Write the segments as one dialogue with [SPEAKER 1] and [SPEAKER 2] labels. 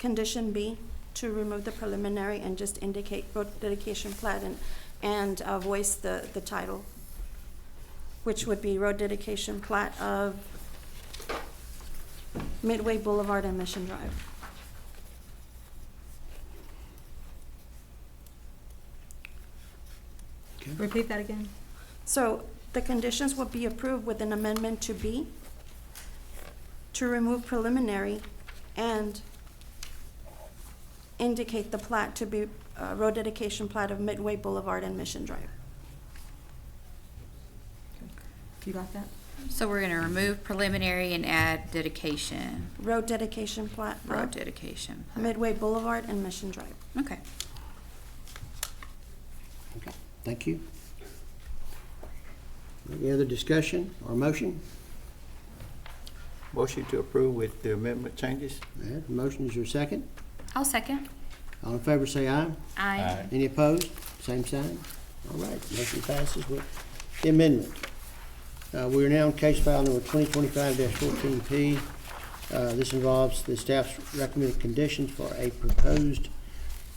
[SPEAKER 1] condition B, to remove the preliminary and just indicate road dedication plat and, and uh, voice the, the title, which would be road dedication plat of Midway Boulevard and Mission Drive.
[SPEAKER 2] Repeat that again.
[SPEAKER 1] So the conditions would be approved with an amendment to B, to remove preliminary and indicate the plat to be uh, road dedication plat of Midway Boulevard and Mission Drive.
[SPEAKER 2] You got that?
[SPEAKER 3] So we're gonna remove preliminary and add dedication,
[SPEAKER 1] Road dedication plat
[SPEAKER 3] road
[SPEAKER 1] of
[SPEAKER 3] dedication.
[SPEAKER 1] Midway Boulevard and Mission Drive.
[SPEAKER 3] Okay.
[SPEAKER 4] Okay, Thank you. Any other discussion or motion?
[SPEAKER 5] Motion to approve with the amendment changes?
[SPEAKER 4] All right, Motion is your second.
[SPEAKER 3] I'll second.
[SPEAKER 4] All in favor, say aye.
[SPEAKER 3] Aye.
[SPEAKER 4] Any opposed? Same sign. All right, motion passes with the amendment. Uh, We are now on case file number 2025-14P. Uh, This involves the staff's recommended conditions for a proposed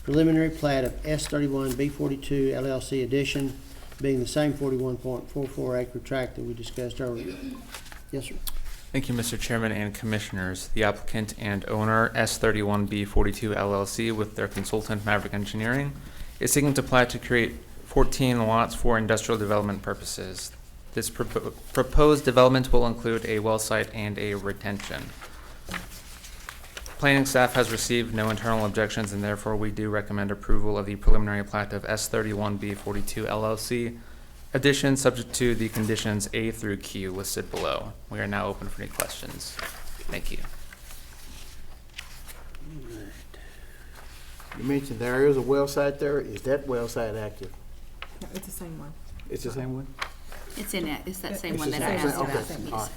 [SPEAKER 4] preliminary plat of S31B42 LLC addition, being the same 41.44 acre tract that we discussed earlier. Yes, sir.
[SPEAKER 6] Thank you, Mr. Chairman and Commissioners. The applicant and owner, S31B42 LLC, with their consultant Maverick Engineering, is seeking to plat to create 14 lots for industrial development purposes. This propo- proposed development will include a well site and a retention. Planning staff has received no internal objections, and therefore we do recommend approval of the preliminary plat of S31B42 LLC, Addition subject to the conditions A through Q listed below. We are now open for any questions. Thank you.
[SPEAKER 5] You mentioned there is a well site there. Is that well site active?
[SPEAKER 2] No, it's the same one.
[SPEAKER 5] It's the same one?
[SPEAKER 3] It's in it, it's that same
[SPEAKER 5] It's
[SPEAKER 3] one
[SPEAKER 5] the
[SPEAKER 3] that I
[SPEAKER 5] same
[SPEAKER 3] asked
[SPEAKER 5] one,
[SPEAKER 3] about.
[SPEAKER 5] okay, all
[SPEAKER 3] Yes.
[SPEAKER 5] right.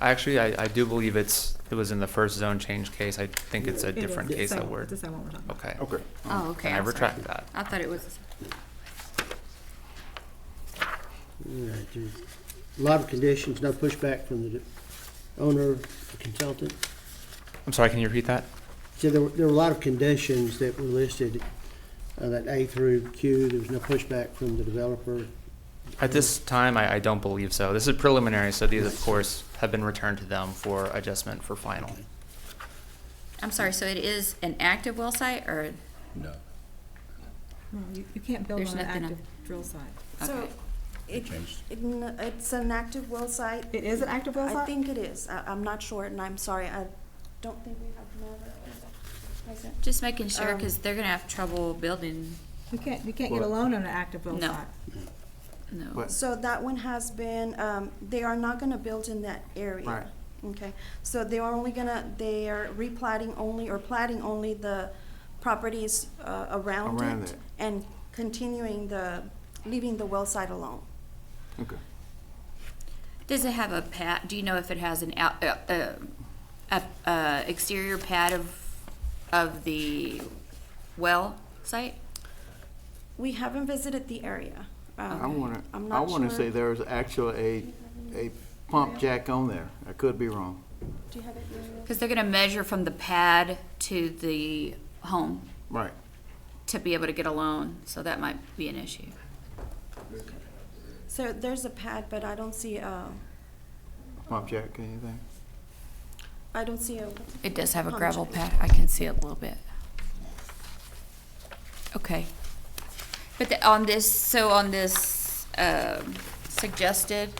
[SPEAKER 6] Actually, I, I do believe it's, it was in the first zone change case. I think it's a
[SPEAKER 2] It is.
[SPEAKER 6] different
[SPEAKER 2] It's the
[SPEAKER 6] case
[SPEAKER 2] same
[SPEAKER 6] that
[SPEAKER 2] one.
[SPEAKER 6] we're,
[SPEAKER 2] It's the same one we're talking about.
[SPEAKER 6] okay.
[SPEAKER 5] Okay.
[SPEAKER 3] Oh, okay.
[SPEAKER 6] Can I
[SPEAKER 3] I'm sorry.
[SPEAKER 6] retract that?
[SPEAKER 3] I thought it was,
[SPEAKER 4] All right, there's A lot of conditions, no pushback from the owner, the consultant.
[SPEAKER 6] I'm sorry, can you repeat that?
[SPEAKER 4] So there were, there were a lot of conditions that were listed, uh, that A through Q, there was no pushback from the developer.
[SPEAKER 6] At this time, I, I don't believe so. This is preliminary, so these, of course, have been returned to them for adjustment for final.
[SPEAKER 3] I'm sorry, so it is an active well site or,
[SPEAKER 7] No,
[SPEAKER 2] No, you, you can't build
[SPEAKER 3] There's
[SPEAKER 2] on an
[SPEAKER 3] nothing on-
[SPEAKER 2] active drill site.
[SPEAKER 1] So
[SPEAKER 3] Okay.
[SPEAKER 7] it
[SPEAKER 1] it,
[SPEAKER 7] changed.
[SPEAKER 1] it n- it's an active well site.
[SPEAKER 2] It is an active well
[SPEAKER 1] I
[SPEAKER 2] site?
[SPEAKER 1] think it is. I, I'm not sure and I'm sorry. I don't think we have Maverick present.
[SPEAKER 3] just making sure,
[SPEAKER 1] Um,
[SPEAKER 3] cause they're gonna have trouble building,
[SPEAKER 2] You can't, you can't get a
[SPEAKER 5] Well-
[SPEAKER 2] loan on an active well
[SPEAKER 3] No.
[SPEAKER 2] site.
[SPEAKER 3] no.
[SPEAKER 5] But-
[SPEAKER 1] So that one has been, um, they are not gonna build in that area.
[SPEAKER 5] Right.
[SPEAKER 1] Okay, so they are only gonna, they are replating only or plating only the properties, uh, around it.
[SPEAKER 5] Around it.
[SPEAKER 1] And continuing the, leaving the well site alone.
[SPEAKER 5] Okay.
[SPEAKER 3] Does it have a pad, do you know if it has an out, uh, uh, a, uh, exterior pad of, of the well site?
[SPEAKER 1] We haven't visited the area. Um,
[SPEAKER 5] I wanna,
[SPEAKER 1] I'm
[SPEAKER 5] I
[SPEAKER 1] not
[SPEAKER 5] wanna
[SPEAKER 1] sure.
[SPEAKER 5] say there is actually a, a pump jack on there. I could be wrong.
[SPEAKER 1] Do you have it, Muriel?
[SPEAKER 3] Because they're gonna measure from the pad to the home
[SPEAKER 5] Right.
[SPEAKER 3] to be able to get a loan, so that might be an issue.
[SPEAKER 1] So there's a pad, but I don't see, uh,
[SPEAKER 5] Pump jack, anything?
[SPEAKER 1] I don't see a,
[SPEAKER 3] It does have a
[SPEAKER 1] Pump
[SPEAKER 3] gravel
[SPEAKER 1] jack.
[SPEAKER 3] pad, I can see it a little bit. Okay. But the- on this, so on this um, suggested,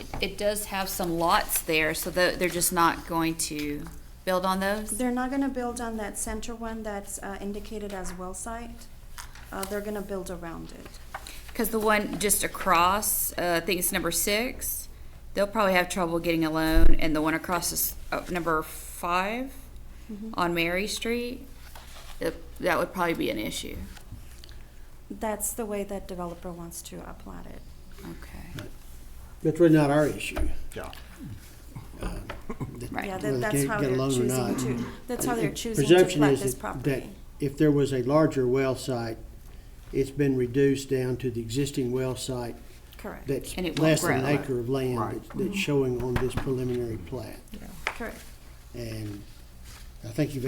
[SPEAKER 3] it- it does have some lots there, so tho- they're just not going to build on those?
[SPEAKER 1] they're not gonna build on that center one that's, uh, indicated as well site. Uh, they're gonna build around it.
[SPEAKER 3] Because the one just across, uh, I think it's number six, they'll probably have trouble getting a loan, and the one across is uh, number five on Mary Street, that that would probably be an issue.
[SPEAKER 1] That's the way that developer wants to apply it.
[SPEAKER 3] Okay.
[SPEAKER 4] That's really not our issue.
[SPEAKER 5] Yeah.
[SPEAKER 4] that-
[SPEAKER 3] Right.
[SPEAKER 1] Yeah, that,
[SPEAKER 4] whether they
[SPEAKER 1] that's
[SPEAKER 4] get-
[SPEAKER 1] how
[SPEAKER 4] get a
[SPEAKER 1] they're
[SPEAKER 4] loan or
[SPEAKER 1] choosing
[SPEAKER 4] not.
[SPEAKER 1] to, that's how they're
[SPEAKER 4] The
[SPEAKER 1] choosing to
[SPEAKER 4] presumption
[SPEAKER 1] plat
[SPEAKER 4] is
[SPEAKER 1] this
[SPEAKER 4] that-
[SPEAKER 1] property.
[SPEAKER 4] that If there was a larger well site, it's been reduced down to the existing well site
[SPEAKER 1] Correct,
[SPEAKER 4] that's
[SPEAKER 3] And it won't
[SPEAKER 4] less than an
[SPEAKER 3] grow.
[SPEAKER 4] acre of land
[SPEAKER 5] Right.
[SPEAKER 4] that's- that's showing on this preliminary plat.
[SPEAKER 1] correct.
[SPEAKER 4] And I think you've